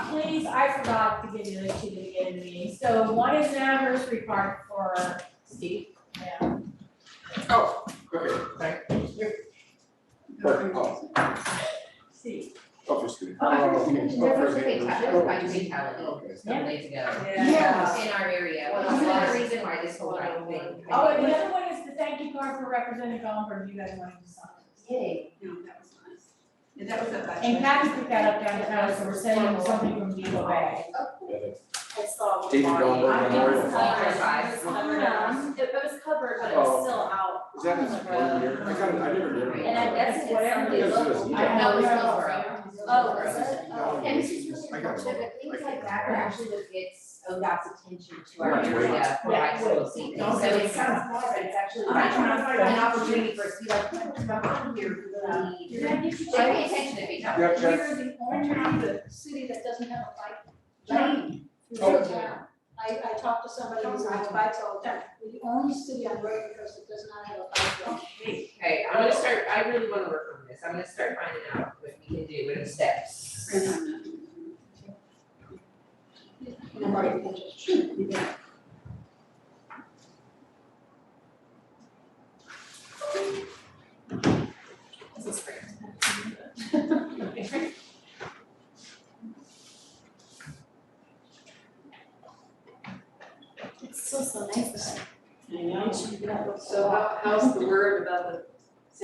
I forgot to give you like two at the beginning of the meeting, so one is an anniversary card for Steve, yeah. Oh, perfect, thank you. Perfect, oh, Steve. obviously. Oh, okay. There was a big, that was by fatality, Okay. some way together, Yeah. in our area, Well, which is another that's- reason why this whole right thing. Oh, and the other one is the thank you card for Representative Gomberg, you guys wanted to sign. Yay. No, that was nice. And that was a budget. And Kathy picked that up downtown, so we're sending something from Depot Bay. I saw. David Marty. Goldberg I think Memorial. it was covered. Five. It was covered. It it was covered, but it Oh. was still out. Is that his one year? I kind of, I never knew. And I guess it's Whatever somebody it is. local. I know it's Oh, was it? Oh. Yeah, And it's this is really just- I got unfortunate, but it. things like that are actually what gets ODOT's attention to Right, our right. area for Yeah. actual safety. Don't So do it it. sounds more, but it's actually I'm trying to find an out. opportunity for us to be like, "Hmm, what's going on here, We really need. You're gonna need to So pay attention to me, Yeah, We're Jeff. the orange half of the city that doesn't have a bike lane through Oh. the town. I, I talked to somebody who rides bikes all the time. We're the only city on Royal Coast that does not have a bike lane. Okay, I'm gonna start, I really wanna work on this, I'm gonna start finding out what we can do, what are the steps. And I'm already interested. It's still so nice. I know. So how, how's the word about the